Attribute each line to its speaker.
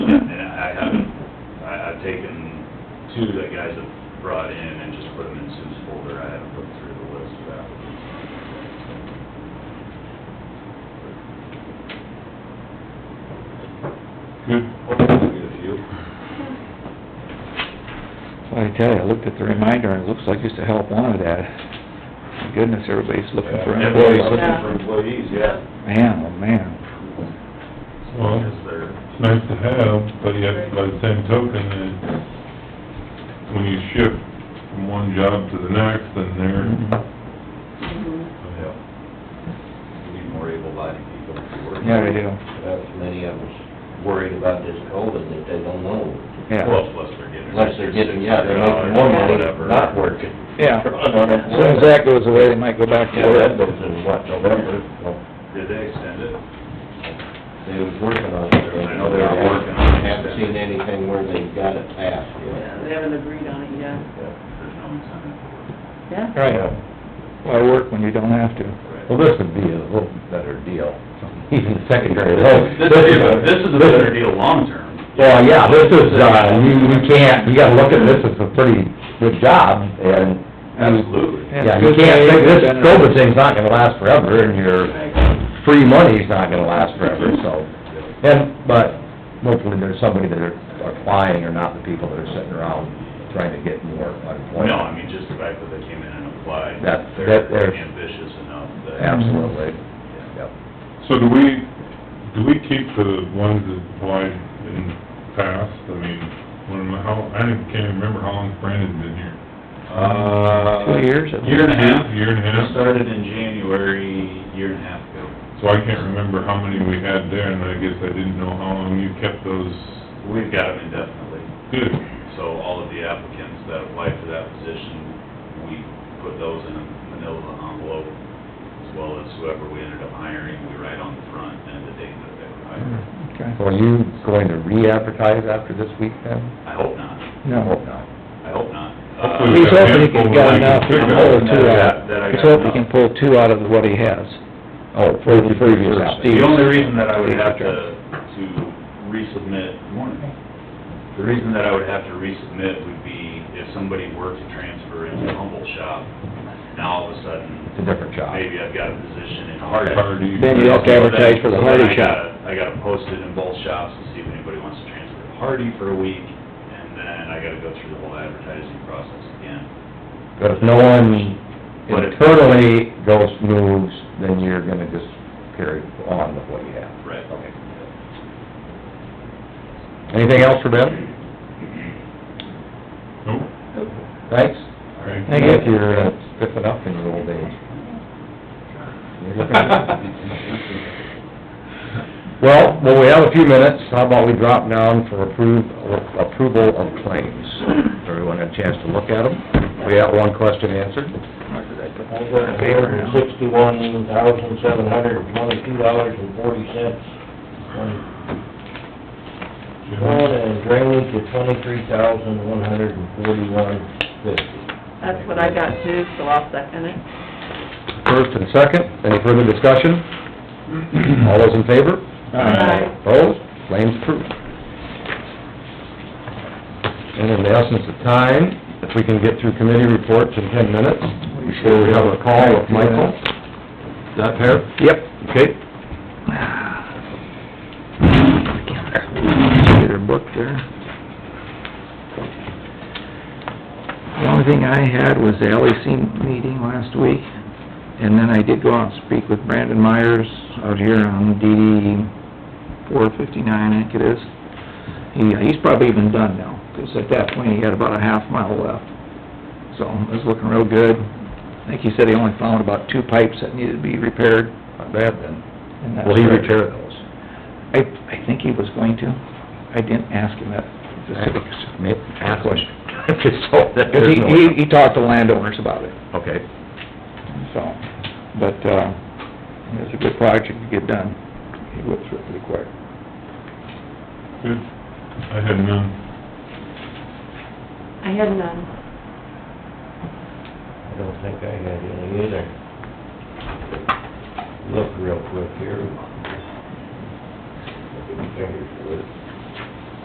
Speaker 1: taken two that guys have brought in and just put them in Sue's folder. I haven't looked through the list of applicants.
Speaker 2: Hmm?
Speaker 1: Hopefully we get a few.
Speaker 2: Well, I tell you, I looked at the reminder, and it looks like it's a help wanted ad. My Goodness, everybody's looking for
Speaker 1: Everybody's
Speaker 2: employees.
Speaker 1: looking for employees, yeah.
Speaker 2: Man, oh, man.
Speaker 1: As long as they're,
Speaker 3: It's nice to have, but yet by the same token, it, when you shift from one job to the next, then they're,
Speaker 1: yeah. We Need more able-bodied people to work.
Speaker 2: Yeah, they do,
Speaker 4: That's many of us worried about this COVID, that they don't know,
Speaker 2: yeah.
Speaker 1: Well, plus they're getting.
Speaker 4: unless they're getting, yeah, they're
Speaker 1: $600
Speaker 4: making more money
Speaker 1: whatever.
Speaker 4: not working.
Speaker 2: Yeah. As soon as that goes away, they might go back to
Speaker 4: Yeah, that
Speaker 2: work.
Speaker 4: goes in what, November, well,
Speaker 1: Did they extend it?
Speaker 4: they was working on it.
Speaker 1: I know they were working on it.
Speaker 4: Haven't seen anything where they got it passed, yet.
Speaker 5: Yeah, they haven't agreed on it yet.
Speaker 1: There's no incentive.
Speaker 5: Yeah.
Speaker 2: Right, why work when you don't have to?
Speaker 1: Right.
Speaker 6: Well, this would be a little better deal, even secondary level.
Speaker 1: This is, a- this is a better deal long-term.
Speaker 6: Well, yeah, this is, uh, you, you can't, you gotta look at this as a pretty good job, and,
Speaker 1: Absolutely.
Speaker 6: yeah, you can't, think this COVID thing's not gonna last forever, and your free money's not gonna last forever, so. And, but hopefully there's somebody that are applying, or not the people that are sitting around trying to get more
Speaker 1: No,
Speaker 6: unemployment.
Speaker 1: I mean, just the fact that they came in and applied.
Speaker 6: That-
Speaker 1: They're
Speaker 6: that- they're-
Speaker 1: ambitious enough that.
Speaker 6: Absolutely,
Speaker 1: Yeah.
Speaker 6: yep.
Speaker 3: so do we, do we keep the ones that applied in past? I mean, when, my- how, I didn't- can't remember how long Brandon's been here.
Speaker 1: Uh.
Speaker 2: Two years at
Speaker 1: Year and a half.
Speaker 3: Year and a half.
Speaker 1: We Started in January, year and a half ago.
Speaker 3: So I can't remember how many we had there, and I guess I didn't know how long you kept those
Speaker 1: We've got them indefinitely.
Speaker 3: good.
Speaker 1: So all of the applicants that applied for that position, we put those in a manila envelope, as well as whoever we ended up hiring, we write on the front and the date that they were hired.
Speaker 6: Mm-hmm.
Speaker 2: Okay,
Speaker 6: So are you going to re-advertise after this week then?
Speaker 1: I hope not,
Speaker 6: I
Speaker 2: no.
Speaker 6: hope not.
Speaker 1: I hope not. Uh,
Speaker 3: Hopefully
Speaker 2: He's hoping he can
Speaker 3: we've got a handful
Speaker 2: get
Speaker 3: that we
Speaker 2: enough, he
Speaker 3: pick
Speaker 2: can
Speaker 3: up.
Speaker 2: pull two out.
Speaker 1: That I
Speaker 2: He's
Speaker 1: got
Speaker 2: hoping he can
Speaker 1: enough.
Speaker 2: pull two out of what he has.
Speaker 6: Oh, for the previous
Speaker 2: Steve.
Speaker 6: application.
Speaker 1: The only reason that I would have to, to resubmit, Good morning. The reason that I would have to resubmit would be if somebody were to transfer into Humboldt shop, now all of a sudden,
Speaker 6: It's a different job.
Speaker 1: maybe I've got a position in
Speaker 3: Hard,
Speaker 1: Hardin.
Speaker 3: hard, you-
Speaker 2: Then you have to advertise for the
Speaker 1: So then
Speaker 2: Hardy
Speaker 1: I
Speaker 2: shop.
Speaker 1: gotta- I gotta post it in both shops to see if anybody wants to transfer to Hardy for a week, and then I gotta go through the whole advertising process again.
Speaker 6: But if no one
Speaker 1: But if-
Speaker 6: internally goes moves, then you're gonna just carry on with what you have.
Speaker 1: Right.
Speaker 6: Okay. Anything else for Ben?
Speaker 3: Nope.
Speaker 6: Thanks.
Speaker 3: Thank
Speaker 2: Thank
Speaker 6: If
Speaker 2: you.
Speaker 6: you're uh, stiffing up in your old age. You're looking- Well, well, we have a few minutes, how about we drop down for approve, approval of claims? Everyone had a chance to look at them? We got one question answered.
Speaker 4: I got a hundred and sixty-one thousand, seven hundred and twenty-two dollars and forty cents. One and drainage to twenty-three thousand, one hundred and forty-one fifty.
Speaker 5: That's what I got too, so I'll second it.
Speaker 6: First and second, any further discussion? All those in favor?
Speaker 5: Aye.
Speaker 6: Opposed? Claims approved. And in the essence of time, if we can get through committee reports in ten minutes, before we have a call with Michael. Is that fair? Yep. Okay.
Speaker 2: Get her book there. The only thing I had was the LEC meeting last week, and then I did go out and speak with Brandon Myers out here on DD four fifty-nine, I think it is. He, he's probably even done now, 'cause at that point, he had about a half mile left. So, it was looking real good. I think he said he only found about two pipes that needed to be repaired.
Speaker 6: Not bad then.
Speaker 2: and that's
Speaker 6: Will he
Speaker 2: right.
Speaker 6: repair those?
Speaker 2: I, I think he was going to. I didn't ask him that specifics.
Speaker 6: Nick, ask him. Just so that
Speaker 2: Because
Speaker 6: there's
Speaker 2: he,
Speaker 6: no-
Speaker 2: he, he talked to landowners about it,
Speaker 6: Okay.
Speaker 2: so, but, uh, it was a good project to get done. He went through it pretty quick.
Speaker 3: Good. I had none.
Speaker 5: I had none.
Speaker 4: I don't think I had any either. Look real quick here. Look at the fingers,